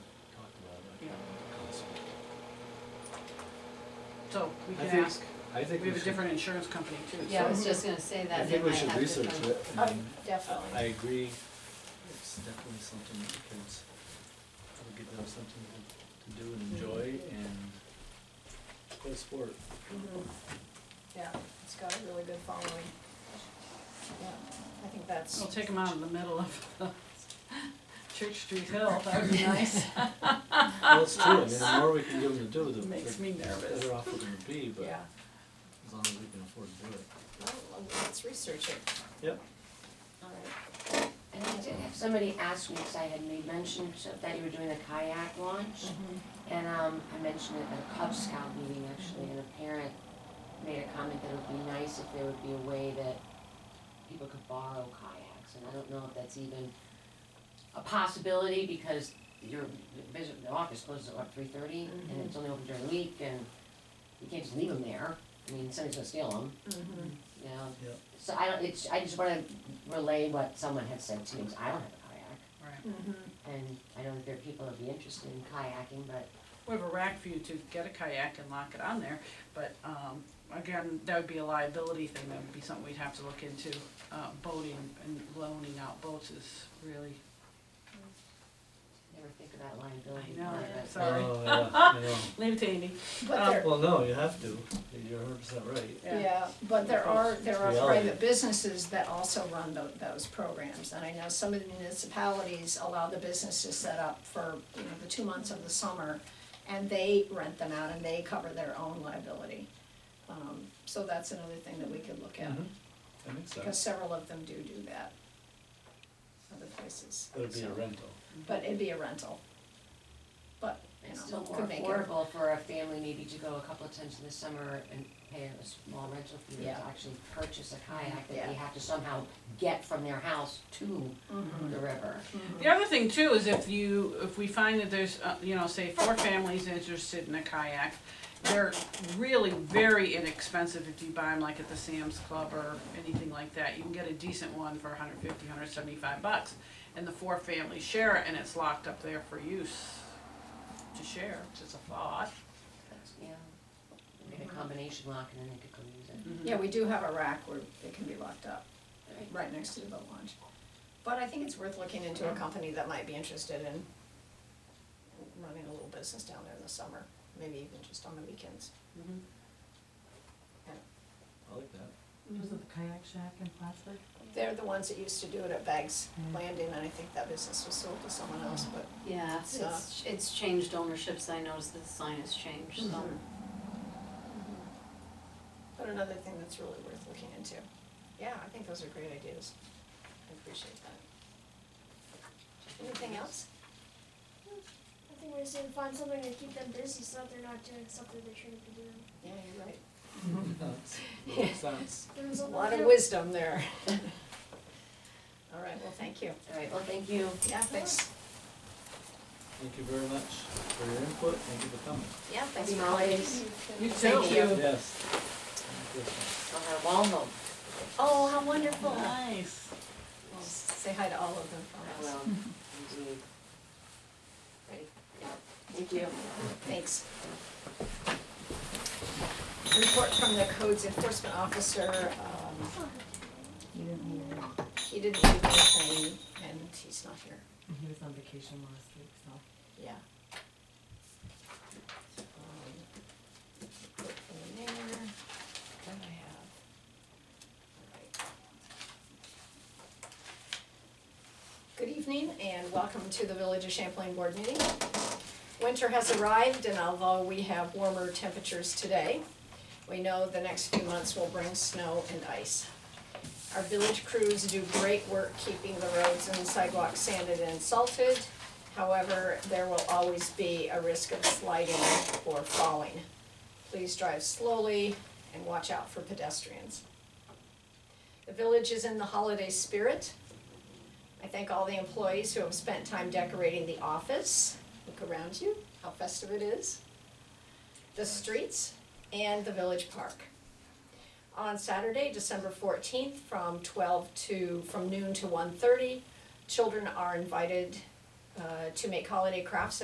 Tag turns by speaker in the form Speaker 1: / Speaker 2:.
Speaker 1: So we
Speaker 2: I
Speaker 1: can
Speaker 2: think,
Speaker 1: ask,
Speaker 2: I think we
Speaker 1: we have a
Speaker 2: should,
Speaker 1: different insurance company too, so.
Speaker 3: Yeah, I was just gonna say that.
Speaker 2: I think
Speaker 3: they
Speaker 2: we
Speaker 3: might
Speaker 2: should
Speaker 3: have to
Speaker 2: research
Speaker 3: come-
Speaker 2: it, and
Speaker 4: Oh,
Speaker 2: I- I
Speaker 4: definitely.
Speaker 2: agree, it's definitely something that kids will get them something to- to do and enjoy and play sport.
Speaker 4: Mhm. Yeah, it's got a really good following. Yeah, I think that's,
Speaker 1: We'll take them out in the middle of the Church Street Hill, that would be nice.
Speaker 2: Well, it's true, I mean, the more we can give them to do, the
Speaker 1: Makes me
Speaker 2: the
Speaker 1: nervous.
Speaker 2: better off we're gonna be, but
Speaker 4: yeah.
Speaker 2: as long as we can afford to do it.
Speaker 4: Well, let's research it.
Speaker 2: Yep.
Speaker 4: All right.
Speaker 5: And I did have somebody ask me, because I had made mention to- that you were doing the kayak launch, and um, I mentioned it at a Cub Scout meeting actually, and a parent made a comment that it would be nice if there would be a way that people could borrow kayaks, and I don't know if that's even a possibility, because your visit, the office closes at what, three thirty, and it's only open during the week, and you can't just leave them there, I mean, somebody's gonna steal them,
Speaker 4: Mhm.
Speaker 5: you know?
Speaker 2: Yeah.
Speaker 5: So I don't, it's, I just wanna relay what someone had said to me, 'cause I don't have a kayak,
Speaker 1: Right.
Speaker 4: Mhm.
Speaker 5: and I know that there are people that'd be interested in kayaking, but
Speaker 1: We have a rack for you to get a kayak and lock it on there, but, um, again, that would be a liability thing, that would be something we'd have to look into. Uh, boating and loaning out boats is really,
Speaker 5: never think about liability.
Speaker 1: I know,
Speaker 5: part of it.
Speaker 1: Sorry.
Speaker 2: Oh, yeah, I know.
Speaker 1: leave it to Amy.
Speaker 4: But there,
Speaker 2: Well, no, you have to, you're hundred percent right.
Speaker 4: Um, yeah, but there are, there are
Speaker 2: Reality.
Speaker 4: private businesses that also run tho- those programs. And I know some of the municipalities allow the business to set up for, you know, the two months of the summer, and they rent them out and they cover their own liability. Um, So that's another thing that we could look at.
Speaker 2: Mhm. That makes
Speaker 4: Because
Speaker 2: sense,
Speaker 4: several of them do do that, other places.
Speaker 2: it would be a
Speaker 4: so-
Speaker 2: rental.
Speaker 4: But it'd be a rental. But, you
Speaker 5: It's
Speaker 4: know,
Speaker 5: still more
Speaker 4: could make it-
Speaker 5: affordable for a family maybe to go a couple of times in the summer and pay a small rental fee to
Speaker 4: Yeah.
Speaker 5: actually purchase a kayak that
Speaker 4: Yeah.
Speaker 5: they have to somehow get from their house to the river.
Speaker 1: The other thing too is if you, if we find that there's, uh, you know, say four families interested in a kayak, they're really very inexpensive if you buy them like at the Sam's Club or anything like that. You can get a decent one for 150, 175 bucks, and the four families share it, and it's locked up there for use to share, which is a thought.
Speaker 5: That's- Yeah. Make a combination lock and then they could go use it.
Speaker 4: Yeah, we do have a rack where it can be locked up, right next to the boat launch. But I think it's worth looking into a company that might be interested in running a little business down there in the summer, maybe even just on the weekends.
Speaker 2: I like that.
Speaker 6: Was it the kayak shack in Plattsburgh?
Speaker 4: They're the ones that used to do it at Bags Landing, and I think that business was sold to someone else, but
Speaker 3: Yeah,
Speaker 4: So-
Speaker 3: it's, it's changed ownerships, I noticed that the sign has changed, so.
Speaker 4: Mhm. But another thing that's really worth looking into. Yeah, I think those are great ideas. I appreciate that. Mm-hmm. Anything else?
Speaker 7: I think we just need to find something to keep them busy so that they're not doing something they shouldn't be doing.
Speaker 4: Yeah, you're right.
Speaker 2: That's- Makes sense.
Speaker 7: There's
Speaker 4: A lot of wisdom there. All right, well, thank you.
Speaker 5: All right, well, thank you.
Speaker 4: Yeah, thanks.
Speaker 2: Thank you very much for your input, thank you for coming.
Speaker 4: Yeah,
Speaker 5: Happy holidays.
Speaker 1: Mm-hmm. You too.
Speaker 4: Thank you.
Speaker 2: Yes. Merry Christmas.
Speaker 5: I'll have a wall home.
Speaker 4: Oh, how wonderful.
Speaker 1: Nice.
Speaker 4: Well, Say hi to all of them for us.
Speaker 5: Well, indeed. Ready? Thank you.
Speaker 4: Thanks. Report from the codes enforcement officer, um,
Speaker 6: You didn't hear it.
Speaker 4: He didn't do anything and he's not here,
Speaker 6: And He was on vacation last week, so.
Speaker 4: yeah. Um, Put in there, then I have. Alright. Good evening and welcome to the Village of Champlain Board meeting. Winter has arrived and although we have warmer temperatures today, we know the next few months will bring snow and ice. Our village crews do great work keeping the roads and sidewalks sanded and salted. However, there will always be a risk of sliding or falling. Please drive slowly and watch out for pedestrians. The village is in the holiday spirit. I thank all the employees who have spent time decorating the office. Look around you, how festive it is. The streets and the village park on Saturday, December fourteenth, from twelve to, from noon to 1:30, Children are invited uh, to make holiday crafts